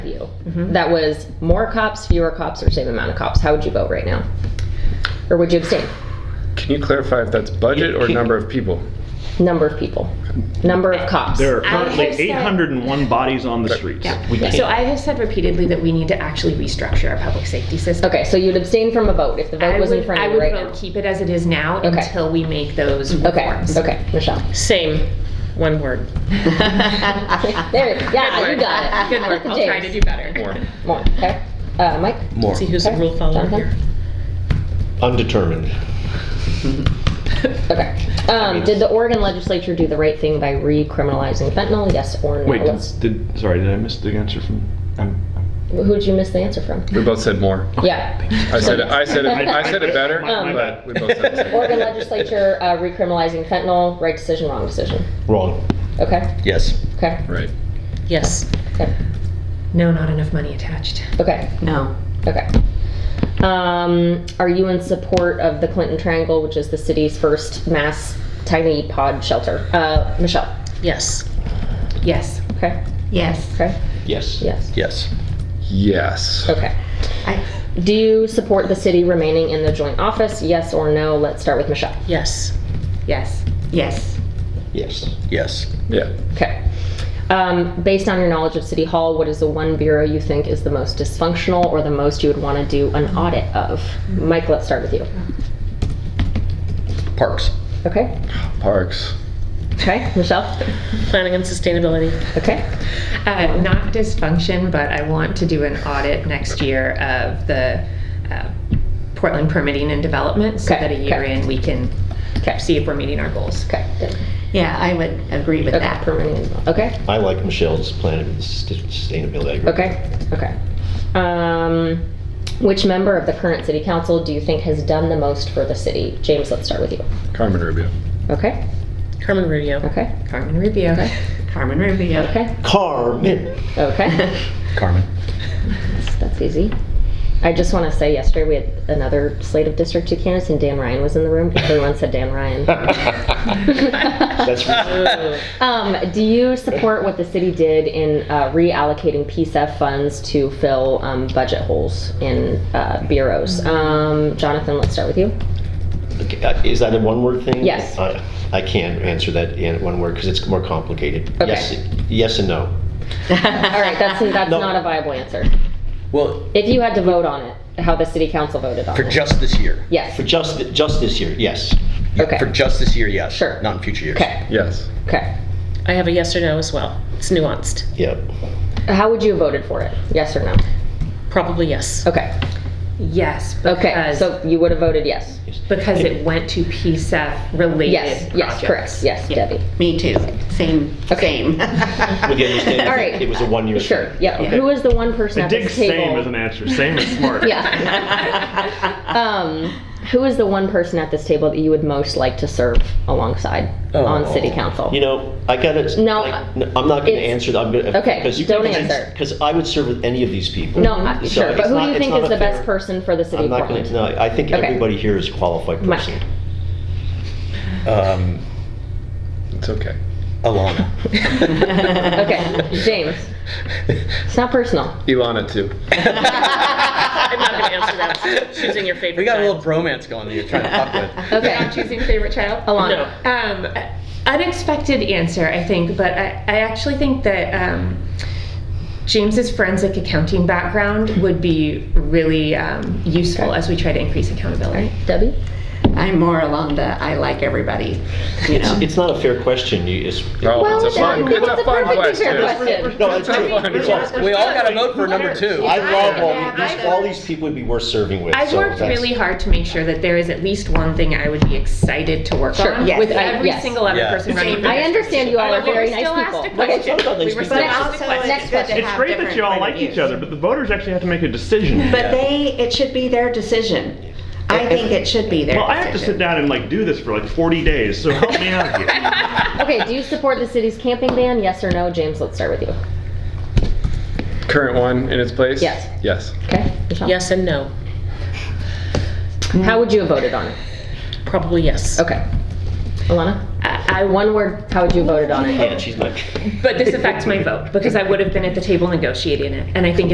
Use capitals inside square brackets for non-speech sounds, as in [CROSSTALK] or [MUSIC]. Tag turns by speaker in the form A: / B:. A: you
B: Mm-hmm.
A: that was more cops, fewer cops, or same amount of cops, how would you vote right now? Or would you abstain?
C: Can you clarify if that's budget or
D: Can-
C: number of people?
A: Number of people, number of cops.
D: There are
B: I
D: currently
B: have said-
D: 801 bodies on the streets.
B: Yeah.
D: We can't-
B: So I have said repeatedly that we need to actually restructure our public safety system.
A: Okay, so you'd abstain from a vote if the vote
B: I
A: was in
B: would,
A: front
B: I
A: of you
B: would
A: right
B: vote
A: now?
B: keep it as it is now
A: Okay.
B: until we make those
A: Okay,
B: reforms.
A: okay, Michelle.
E: Same, one
A: [LAUGHS]
E: word.
A: There, yeah, you got it.
B: [LAUGHS] Good work, I'll try to do better.
C: More.
A: More, okay. Uh, Mike?
F: More.
E: See who's the rule follower here.
F: Undetermined.
A: Okay. Um, did the Oregon legislature do the right thing by recriminalizing fentanyl? Yes or no?
D: Wait, did,
A: Let's-
D: did- sorry, did I miss the answer from? I'm- I'm-
A: Who'd you miss the answer from?
C: We both said more.
A: Yeah.
C: I said, it- I said, it- I said it better,
D: Um,
C: but we both said the same.
A: Oregon legislature uh, recriminalizing fentanyl, right decision, wrong decision.
F: Wrong.
A: Okay,
F: Yes.
A: okay,
C: Right.
E: Yes.
A: okay,
B: No, not enough money attached.
A: okay,
E: No.
A: okay. Um, are you in support of the Clinton Triangle, which is the city's first mass tiny pod shelter? Uh, Michelle?
E: Yes.
B: Yes.
A: Okay,
B: Yes.
A: okay,
F: Yes.
A: yes,
F: Yes.
C: Yes.
A: okay. Do you support the city remaining in the joint office? Yes or no? Let's start with Michelle.
E: Yes.
B: Yes. Yes.
F: Yes. Yes.
C: Yeah.
A: Okay. Um, based on your knowledge of City Hall, what is the one bureau you think is the most dysfunctional or the most you would want to do an audit of? Mike, let's start with you.
F: Parks.
A: Okay.
C: Parks.
A: Okay. Michelle.
E: Planning and sustainability.
A: Okay.
B: Uh, not dysfunction, but I want to do an audit next year of the uh, Portland permitting and development so
A: Okay,
B: that a year
A: okay.
B: in, we can
A: Okay.
B: see if we're meeting our goals.
A: Okay.
G: Yeah, I would agree with
A: Okay.
G: that.
A: Permanent. Okay.
F: I like Michelle's plan of sustainability. I agree.
A: Okay. Okay. Um, which member of the current City Council do you think has done the most for the city? James, let's start with you.
C: Carmen Rubio.
A: Okay.
E: Carmen Rubio.
A: Okay.
B: Carmen Rubio.
G: Carmen Rubio.
A: Okay.
F: Carmen.
A: Okay.
F: Carmen.
A: That's easy. I just want to say, yesterday we had another slate of district two candidates, and Dan Ryan was in the room. Everyone said Dan [LAUGHS]
F: That's
A: Ryan. um, do you support what the city did in uh, reallocating PSEF funds to fill um, budget holes in uh,
F: Mm-hmm.
A: bureaus? Um, Jonathan, let's start with you.
F: Okay, uh, Is that a one-word thing?
A: Yes.
F: I I can't answer that in one word because it's more complicated.
A: Okay.
F: Yes, yes and no.
A: All right, that's that's
F: No.
A: not a viable answer.
F: Well,
A: If you had to vote on it, how the city council voted on
H: For
A: it?
H: just this year?
A: yes.
F: for just, just this year, yes.
A: okay.
H: For just this year, yes.
A: Sure.
H: Not in future years.
A: okay.
C: Yes.
A: Okay.
E: I have a yes or no as well. It's nuanced.
F: Yep.
A: How would you have voted for it? Yes or no?
E: Probably yes.
A: Okay.
B: Yes,
A: Okay,
B: because,
A: so you would have voted yes.
B: because it went to PSEF related
A: Yes, yes, correct.
B: projects.
A: Yes, Debbie.
G: Me too.
B: [LAUGHS]
G: Same,
F: With
G: same.
F: the understanding
A: All right.
F: that it was a one-year. thing.
A: Sure, yeah.
F: Okay.
A: Who was the one person
D: I
A: at
D: dig
A: this table?
D: same as an answer, same as
A: [LAUGHS]
F: [LAUGHS]
D: smart.
A: Yeah. Um, who is the one person at this table that you would most like to serve alongside on city council?
F: Oh. You know, I gotta.
A: No,
F: like, n- I'm not gonna
A: it's-
F: answer that. I'm gonna.
A: Okay, don't answer.
F: Because I would serve with any of these people.
A: No, I-
F: So
A: sure,
F: it's
A: but who
F: not-
A: do you
F: it's
A: think
F: not
A: is
F: a
A: the best
F: fair-
A: person for the city
F: I'm
A: of
F: not gonna,
A: Portland?
F: no, I think
A: Okay.
F: everybody here is a qualified
A: Mike.
F: person.
H: Um,
C: It's okay.
H: Alana.
A: [LAUGHS] Okay,
F: [LAUGHS]
A: James, it's not personal.
C: Ilana too.
E: [LAUGHS] I'm not going to answer that. Choosing your favorite.
H: We got a
E: side.
H: little bromance going that you're trying to fuck with.
B: Not
A: Okay,
B: choosing favorite child.
E: No.
A: Alana.
B: Um, unexpected answer, I think, but I, I actually think that um, James's forensic accounting background would be really um, useful as we try to increase accountability.
A: Debbie?
G: I'm more along the I like everybody, you know.
F: It's not a fair question. You, it's.
C: Oh,
A: Well,
C: it's a fun,
A: it's
C: it's a
A: a
C: fun
A: perfectly fair
C: question.
A: question.
F: No, it's
C: It's a
F: true.
C: fun question.
H: We all got to vote for number two.
F: I love all,
B: Yeah,
F: these-
B: I've
F: all
B: worked-
F: these people would be worth serving with.
B: I've
F: so
B: worked
F: that's-
B: really hard to make sure that there is at least one thing I would be excited to work
A: Sure,
B: on
A: yes,
B: with
A: I-
B: every
A: yes.
B: single other
H: Yeah.
B: person running. for
A: I
B: district.
A: understand you all
B: But
A: are
B: we
A: very
B: were
A: nice
B: still asked a
A: people. [LAUGHS]
B: question.
F: Talk about
B: We
F: these
B: were
F: people.
B: still asked a question.
A: Next question.
D: It's great that you all like each other, but the voters actually have to make a decision.
G: But they, it should be their decision. I think it should be their
D: Well, I have to sit
G: decision.
D: down and like do this for like 40 days, so help me
A: [LAUGHS]
D: out here.
A: Okay, do you support the city's camping ban? Yes or no? James, let's start with you.
C: Current one in its place?
A: Yes.
C: Yes.
A: Okay, Michelle?
E: Yes and no.
A: How would you have voted on it?
E: Probably yes.
A: Okay. Alana?
B: I
A: I one word. How would you have voted on it?
F: Yeah, she's not.
B: But this affects my vote because I would have been at the table negotiating it. And I think